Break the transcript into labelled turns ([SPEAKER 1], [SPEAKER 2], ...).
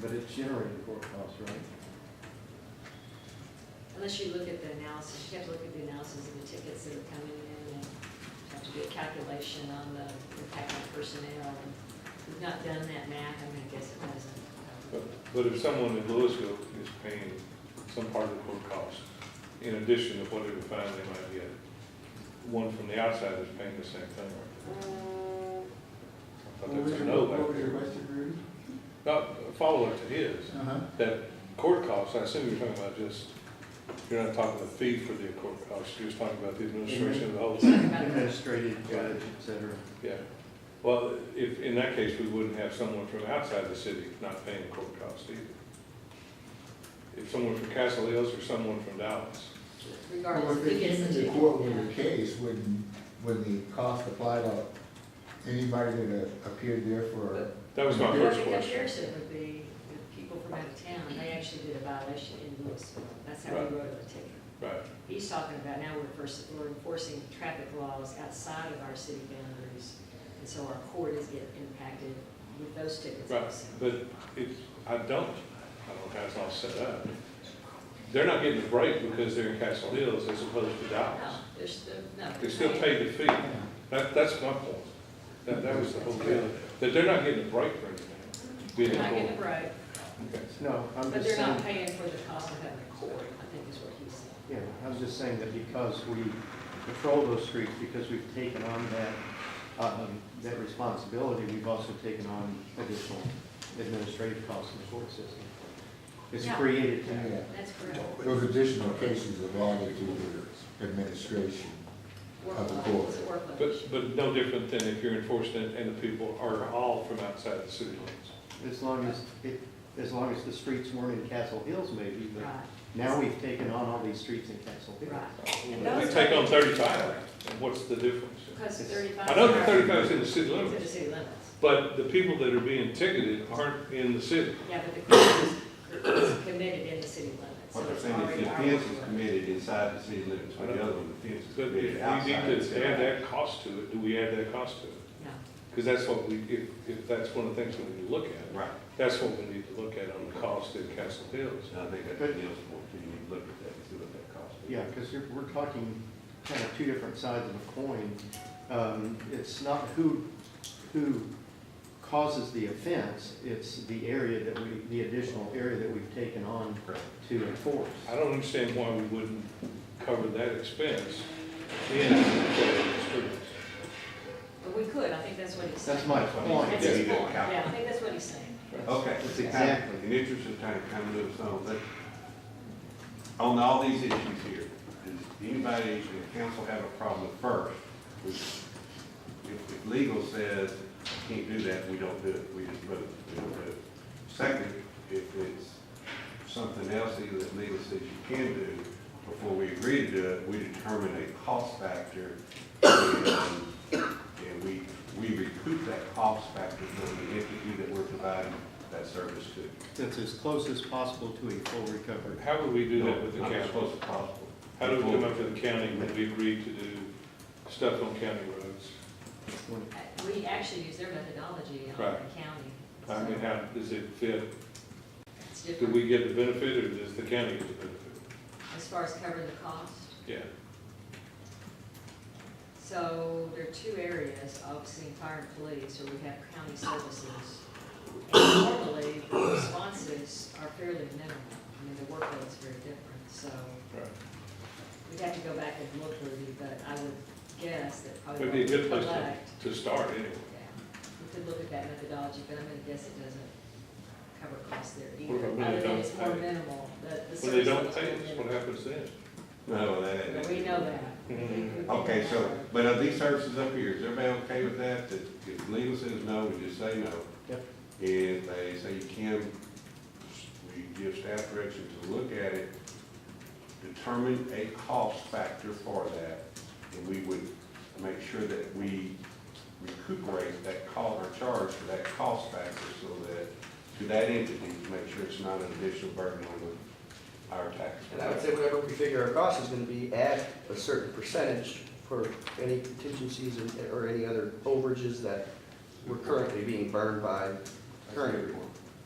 [SPEAKER 1] But it's generated for cost, right?
[SPEAKER 2] Unless you look at the analysis, you have to look at the analysis of the tickets that are coming in and have to do a calculation on the impact on personnel. And We've not done that math, I mean, I guess it uh, hasn't.
[SPEAKER 3] But but if someone in Louisville is paying some part of the court cost, in addition to whatever fine they might get, one from the outside is paying the same thing, right? I
[SPEAKER 1] What
[SPEAKER 3] thought
[SPEAKER 1] was
[SPEAKER 3] that's a
[SPEAKER 1] your,
[SPEAKER 3] no
[SPEAKER 1] what
[SPEAKER 3] back
[SPEAKER 1] was your
[SPEAKER 3] there.
[SPEAKER 1] Western Groove?
[SPEAKER 3] Not follow it to his,
[SPEAKER 1] Uh-huh.
[SPEAKER 3] that court cost, I assume you're talking about just, you're not talking the fee for the court cost, you're just talking about the administration of the whole thing.
[SPEAKER 1] Administrative, judge, et cetera.
[SPEAKER 3] Yeah, well, if, in that case, we wouldn't have someone from outside the city not paying court costs either. If someone from Castle Hills or someone from Dallas.
[SPEAKER 2] Regardless,
[SPEAKER 4] Well,
[SPEAKER 2] who
[SPEAKER 4] if
[SPEAKER 2] gets
[SPEAKER 4] it's
[SPEAKER 2] the
[SPEAKER 4] in the
[SPEAKER 2] ticket.
[SPEAKER 4] court with the
[SPEAKER 2] yeah.
[SPEAKER 4] case, wouldn't, would the cost apply to anybody that uh, appeared there for,
[SPEAKER 3] That was my
[SPEAKER 2] Well,
[SPEAKER 3] first
[SPEAKER 2] the
[SPEAKER 3] question.
[SPEAKER 2] comparison would be the people from out of town, they actually did a violation in Louisville. That's how
[SPEAKER 3] Right.
[SPEAKER 2] we wrote the ticket.
[SPEAKER 3] Right,
[SPEAKER 2] He's talking about now we're first, we're enforcing traffic laws outside of our city boundaries. And so our court is getting impacted with those tickets
[SPEAKER 3] right,
[SPEAKER 2] also.
[SPEAKER 3] but it's, I don't, I don't know how it's all set up. They're not getting a break because they're in Castle Hills as opposed to
[SPEAKER 2] No,
[SPEAKER 3] Dallas.
[SPEAKER 2] they're still, no.
[SPEAKER 3] They still pay the fee. That, that's my point. That, that was the whole deal, that they're not getting a break for anything. being in
[SPEAKER 2] They're not
[SPEAKER 3] court.
[SPEAKER 2] getting a break,
[SPEAKER 3] Okay.
[SPEAKER 1] No, I'm
[SPEAKER 2] but
[SPEAKER 1] just
[SPEAKER 2] they're not
[SPEAKER 1] saying,
[SPEAKER 2] paying for the cost of having a court, I think is what he's saying.
[SPEAKER 1] yeah, I'm just saying that because we patrol those streets, because we've taken on that, um, that responsibility, we've also taken on additional administrative costs in the court system. It's
[SPEAKER 2] Yeah.
[SPEAKER 1] created
[SPEAKER 4] yeah,
[SPEAKER 1] that.
[SPEAKER 2] That's correct.
[SPEAKER 4] those additional cases are allotted to the administration? Of the
[SPEAKER 2] Workload, It's a
[SPEAKER 4] court.
[SPEAKER 2] workload issue.
[SPEAKER 3] But, but no different than if you're enforcing it and the people are all from outside the city limits.
[SPEAKER 1] As long as, it, as long as the streets weren't in Castle Hills maybe, but
[SPEAKER 2] Right,
[SPEAKER 1] now we've taken on all these streets in Castle Hills.
[SPEAKER 2] right. And
[SPEAKER 3] If
[SPEAKER 2] those
[SPEAKER 3] We take
[SPEAKER 2] are-
[SPEAKER 3] on thirty-five, and what's the difference?
[SPEAKER 2] Because
[SPEAKER 1] It's-
[SPEAKER 2] thirty-five.
[SPEAKER 3] I know the
[SPEAKER 2] are-
[SPEAKER 3] thirty-five is in the city
[SPEAKER 2] It's in the
[SPEAKER 3] limits,
[SPEAKER 2] city limits.
[SPEAKER 3] but the people that are being ticketed aren't in the city.
[SPEAKER 2] Yeah, but the crime is is committed in the city limits. so
[SPEAKER 5] What they're
[SPEAKER 2] it's
[SPEAKER 5] saying is the
[SPEAKER 2] already our
[SPEAKER 5] offense is
[SPEAKER 2] work.
[SPEAKER 5] committed inside the city limits, but the other one, the offense is
[SPEAKER 3] But if we need
[SPEAKER 5] committed outside the city.
[SPEAKER 3] to add
[SPEAKER 5] limits.
[SPEAKER 3] that cost to it, do we add that cost to it?
[SPEAKER 2] No.
[SPEAKER 3] Because that's what we, if, if that's one of the things we need to look at,
[SPEAKER 5] Right,
[SPEAKER 3] that's what we need to look at on the cost in Castle Hills.
[SPEAKER 5] and I think that's the deal sport, too, you need to look at that, and see what that costs.
[SPEAKER 1] Yeah, because you're, we're talking kind of two different sides of a coin. Um, it's not who, who causes the offense, it's the area that we, the additional area that we've taken on
[SPEAKER 5] Correct.
[SPEAKER 1] to enforce.
[SPEAKER 3] I don't understand why we wouldn't cover that expense in the streets.
[SPEAKER 2] But we could, I think that's what he's saying.
[SPEAKER 1] That's my point.
[SPEAKER 2] That's his
[SPEAKER 5] Yeah, you
[SPEAKER 2] point,
[SPEAKER 5] got it.
[SPEAKER 2] yeah, I think that's what he's saying.
[SPEAKER 5] Okay.
[SPEAKER 1] That's exactly.
[SPEAKER 5] In the interest of time, kind of move on, but on all these issues here, does anybody in the council have a problem first? If, if legal says can't do that, we don't do it, we just vote, we don't do it. Second, if it's something else either that legal says you can do, before we agree to do it, we determine a cost factor and and we, we recoup that cost factor from the entity that we're providing that service to.
[SPEAKER 1] That's as close as possible to a full recovery.
[SPEAKER 3] How would we do that with the
[SPEAKER 5] Not as
[SPEAKER 3] county?
[SPEAKER 5] close as possible.
[SPEAKER 3] How do we come up with the county when we agreed to do stuff on county roads?
[SPEAKER 2] Uh, We actually use their methodology on
[SPEAKER 3] Right.
[SPEAKER 2] the county.
[SPEAKER 3] I mean,
[SPEAKER 2] so
[SPEAKER 3] how, does it fit?
[SPEAKER 2] It's
[SPEAKER 3] Do
[SPEAKER 2] different
[SPEAKER 3] we get the benefit or does the county get the benefit?
[SPEAKER 2] as far as covering the cost.
[SPEAKER 3] Yeah,
[SPEAKER 2] So there are two areas, obviously, in fire and police, where we have county services. And normally, the responses are fairly minimal. I mean, the workload is very different, so
[SPEAKER 3] right.
[SPEAKER 2] we'd have to go back and look, Rudy, but I would guess that probably.
[SPEAKER 3] Would be a good place to,
[SPEAKER 2] collect-
[SPEAKER 3] to start anyway.
[SPEAKER 2] Yeah, we could look at that methodology, but I'm gonna guess it doesn't cover costs there
[SPEAKER 3] What about
[SPEAKER 2] either. Other than
[SPEAKER 3] when they don't
[SPEAKER 2] it's more
[SPEAKER 3] pay?
[SPEAKER 2] minimal, the, the
[SPEAKER 3] When they
[SPEAKER 2] services.
[SPEAKER 3] don't
[SPEAKER 2] are
[SPEAKER 3] pay us, what
[SPEAKER 2] minimal.
[SPEAKER 3] happens then?
[SPEAKER 5] No, that.
[SPEAKER 2] But
[SPEAKER 5] that-
[SPEAKER 2] We know that.
[SPEAKER 3] Mhm.
[SPEAKER 5] Okay, so, but are these services up here, is everybody okay with that? That if legal says no, we just say no?
[SPEAKER 1] Yep.
[SPEAKER 5] And if they say you can, we give staff direction to look at it, determine a cost factor for that, and we would make sure that we recuperate that call or charge for that cost factor so that, to that entity, to make sure it's not an additional burden on the, our tax.
[SPEAKER 6] And I would say whatever we figure our cost is gonna be, add a certain percentage for any contingencies and- or any other overages that we're currently being burned by current